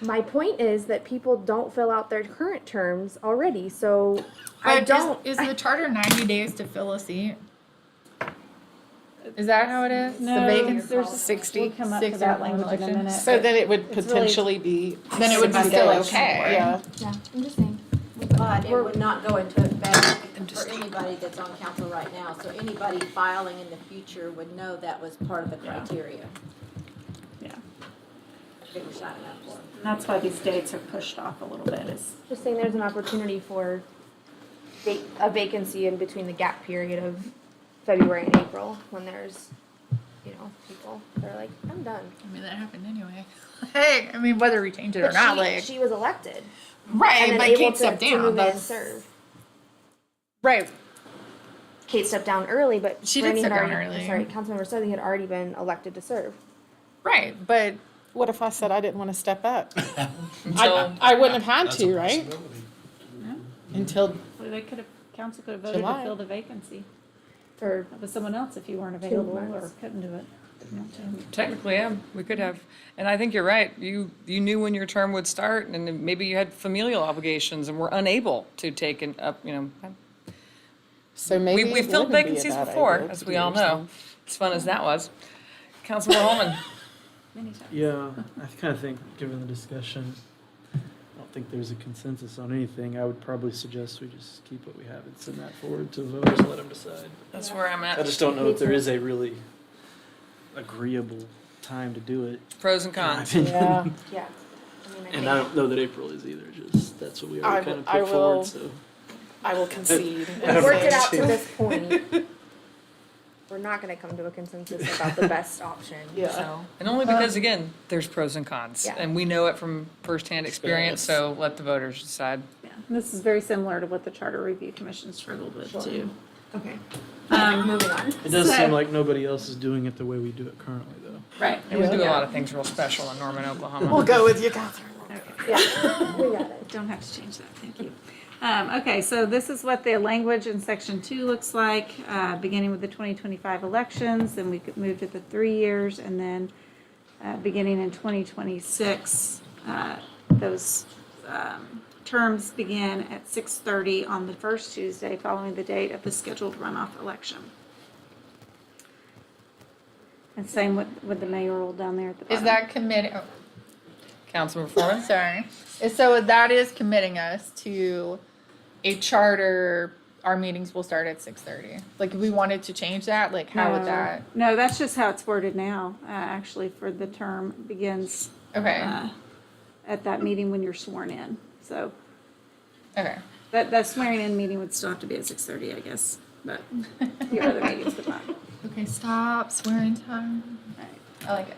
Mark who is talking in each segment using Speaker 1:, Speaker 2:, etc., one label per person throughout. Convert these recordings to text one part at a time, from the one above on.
Speaker 1: My point is that people don't fill out their current terms already, so I
Speaker 2: But
Speaker 1: don't.
Speaker 2: Is, is the charter ninety days to fill a seat? Is that how it is?
Speaker 3: No,
Speaker 2: the vacancy.
Speaker 3: there's
Speaker 4: Sixty.
Speaker 3: We'll come up to
Speaker 2: 60
Speaker 3: that
Speaker 2: or one
Speaker 3: language in a
Speaker 2: election.
Speaker 3: minute.
Speaker 4: So then it would
Speaker 3: It's really-
Speaker 4: potentially be.
Speaker 2: Then it would be
Speaker 4: 60
Speaker 2: still
Speaker 4: days.
Speaker 2: okay.
Speaker 4: Yeah.
Speaker 1: Yeah, I'm just saying.
Speaker 5: But it would not go into effect for anybody that's on council right now, so anybody filing in the future would know that was part of the
Speaker 3: Yeah.
Speaker 5: criteria.
Speaker 3: Yeah.
Speaker 5: They were signing up for.
Speaker 3: And That's why these dates are pushed off a little bit is.
Speaker 1: Just saying there's an opportunity for va- a vacancy in between the gap period of February and April when there's, you know, people that are like, I'm done.
Speaker 2: I mean, that happened anyway. Hey, I mean, whether we change it or
Speaker 1: But
Speaker 2: not,
Speaker 1: she,
Speaker 2: like
Speaker 1: she was elected and
Speaker 2: right,
Speaker 1: then
Speaker 2: but
Speaker 1: able
Speaker 2: Kate
Speaker 1: to,
Speaker 2: stepped
Speaker 1: to move
Speaker 2: down.
Speaker 1: in and
Speaker 2: That's
Speaker 1: serve.
Speaker 2: right.
Speaker 1: Kate stepped down early, but
Speaker 2: She did
Speaker 1: Brandy had
Speaker 2: step down
Speaker 1: already-
Speaker 2: early.
Speaker 1: Sorry, Councilmember Southey had already been elected to serve.
Speaker 2: Right, but
Speaker 4: What if I said I didn't want to step up?
Speaker 2: Until-
Speaker 4: I, I wouldn't have had
Speaker 6: That's a
Speaker 4: to, right?
Speaker 6: possibility.
Speaker 4: Until,
Speaker 3: Well, they could have, council could have voted to
Speaker 4: July.
Speaker 3: fill the vacancy.
Speaker 1: Or
Speaker 3: That was someone else if you weren't available or
Speaker 1: months.
Speaker 3: couldn't do it.
Speaker 7: Technically, yeah, we could have, and I think you're right. You, you knew when your term would start and then maybe you had familial obligations and were unable to take an up, you know.
Speaker 4: so maybe.
Speaker 7: We, we
Speaker 4: it
Speaker 7: filled
Speaker 4: wouldn't be a
Speaker 7: vacancies
Speaker 4: bad
Speaker 7: before,
Speaker 4: idea
Speaker 7: as
Speaker 4: to
Speaker 7: we
Speaker 4: do
Speaker 7: all know, as fun as that was. Councilman Holman,
Speaker 3: Many times.
Speaker 8: Yeah, I kind of think, given the discussion, I don't think there's a consensus on anything. I would probably suggest we just keep what we have and send that forward to voters, let them decide.
Speaker 7: that's where I'm
Speaker 8: I
Speaker 7: at.
Speaker 8: just don't know if there is a really agreeable time to do it.
Speaker 7: Pros and
Speaker 8: in my
Speaker 7: cons.
Speaker 8: opinion.
Speaker 4: Yeah,
Speaker 1: yeah. I mean, I
Speaker 8: And
Speaker 1: think-
Speaker 8: I don't know that April is either, just, that's what we
Speaker 4: I
Speaker 8: already
Speaker 4: will-
Speaker 8: kind of
Speaker 4: I
Speaker 8: put
Speaker 4: will-
Speaker 8: forward, so.
Speaker 4: I will concede. and
Speaker 1: We've worked it
Speaker 4: say-
Speaker 1: out to this point. We're not gonna come to a consensus about the best option,
Speaker 4: Yeah.
Speaker 1: so.
Speaker 7: And
Speaker 4: Um,
Speaker 7: only because, again, there's pros and cons.
Speaker 1: Yeah.
Speaker 7: And we know it from firsthand experience, so let the voters decide.
Speaker 3: Yeah. And This is very similar to what the Charter Review Commission struggled with too.
Speaker 1: Okay.
Speaker 3: Um,
Speaker 1: Moving on.
Speaker 8: It does
Speaker 3: So-
Speaker 8: seem like nobody else is doing it the way we do it currently, though.
Speaker 3: Right.
Speaker 7: And we do a lot of things real special in Norman,
Speaker 4: We'll
Speaker 7: Oklahoma.
Speaker 4: go with you, Catherine.
Speaker 1: Yeah, we got it.
Speaker 3: Don't have to change that, thank you. Um, okay, so this is what the language in section two looks like, uh, beginning with the twenty twenty-five elections, and we could move to the three years, and then, uh, beginning in twenty twenty-six, uh, those, um, terms begin at six thirty on the first Tuesday following the date of the scheduled runoff election. And same with, with the mayoral down there at the
Speaker 2: is
Speaker 3: bottom.
Speaker 2: that committing? Oh,
Speaker 7: Councilman
Speaker 2: I'm
Speaker 7: Foreman?
Speaker 2: sorry. So that is committing us to a charter. Our meetings will start at six thirty. Like if we wanted to change that, like how would
Speaker 3: No.
Speaker 2: that?
Speaker 3: Uh, No, that's just how it's worded now, uh, actually, for the term begins
Speaker 2: Okay.
Speaker 3: uh, at that meeting when you're sworn in. So
Speaker 2: okay.
Speaker 3: that, that swearing in meeting would still have to be at six thirty, I guess, but your other meetings would not.
Speaker 2: Okay. Stop swearing time. I like it.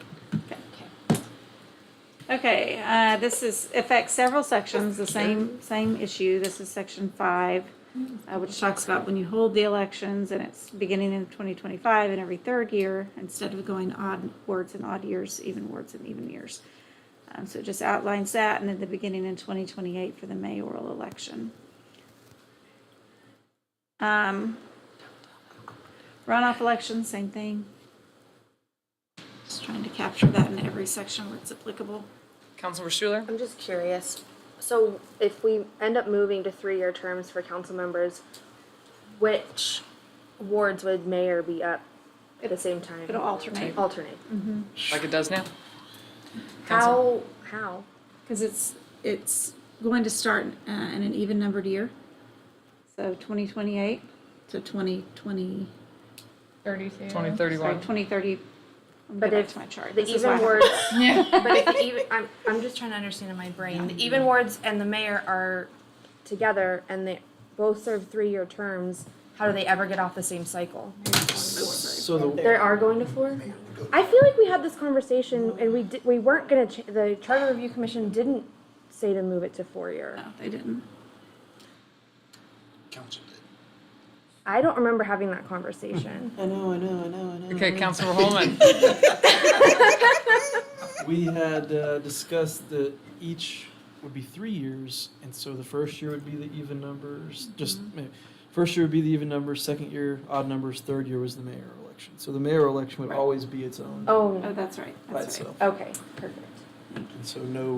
Speaker 3: Okay, uh, this is, affects several sections, the same, same issue. This is section five, uh, which talks about when you hold the elections and it's beginning in twenty twenty-five and every third year, instead of going odd words and odd years, even words and even years. Um, so it just outlines that and then the beginning in twenty twenty-eight for the mayoral election. Um, runoff elections, same thing. Just trying to capture that in every section where it's applicable.
Speaker 7: Councilman Schuler?
Speaker 1: I'm just curious, so if we end up moving to three-year terms for council members, which wards would mayor be up at the same time?
Speaker 3: It'll alternate,
Speaker 1: Alternate.
Speaker 7: Like it does now?
Speaker 1: How, how?
Speaker 3: because it's, it's going to start uh, in an even numbered year. So 2028 to 2020,
Speaker 2: Thirty-two.
Speaker 7: Twenty
Speaker 3: sorry,
Speaker 7: thirty-one.
Speaker 3: 2030. I'm
Speaker 1: But
Speaker 3: going back
Speaker 1: if
Speaker 3: to my chart.
Speaker 1: The
Speaker 3: This is why
Speaker 1: even
Speaker 3: I-
Speaker 1: words,
Speaker 2: Yeah.
Speaker 1: but if the even, I'm, I'm just trying to understand in my brain, the even words and the mayor are together and they both serve three-year terms, how do they ever get off the same cycle?
Speaker 8: So the,
Speaker 1: There are going to four? I feel like we had this conversation and we did, we weren't gonna, ch- the Charter Review Commission didn't say to move it to four-year.
Speaker 3: No, They didn't.
Speaker 6: Council did.
Speaker 1: I don't remember having that conversation.
Speaker 4: I know, I know, I know, I know.
Speaker 7: Okay, Councilman Holman.
Speaker 8: we had uh, discussed that each would be three years, and so the first year would be the even numbers. Just
Speaker 3: Mm-hmm.
Speaker 8: maybe, first year would be the even numbers, second year odd numbers, third year was the mayor election. So the mayor election would always be its own
Speaker 1: Oh,
Speaker 3: Oh, that's right,
Speaker 8: by
Speaker 3: that's right.
Speaker 8: itself,
Speaker 1: okay, perfect.
Speaker 8: and so no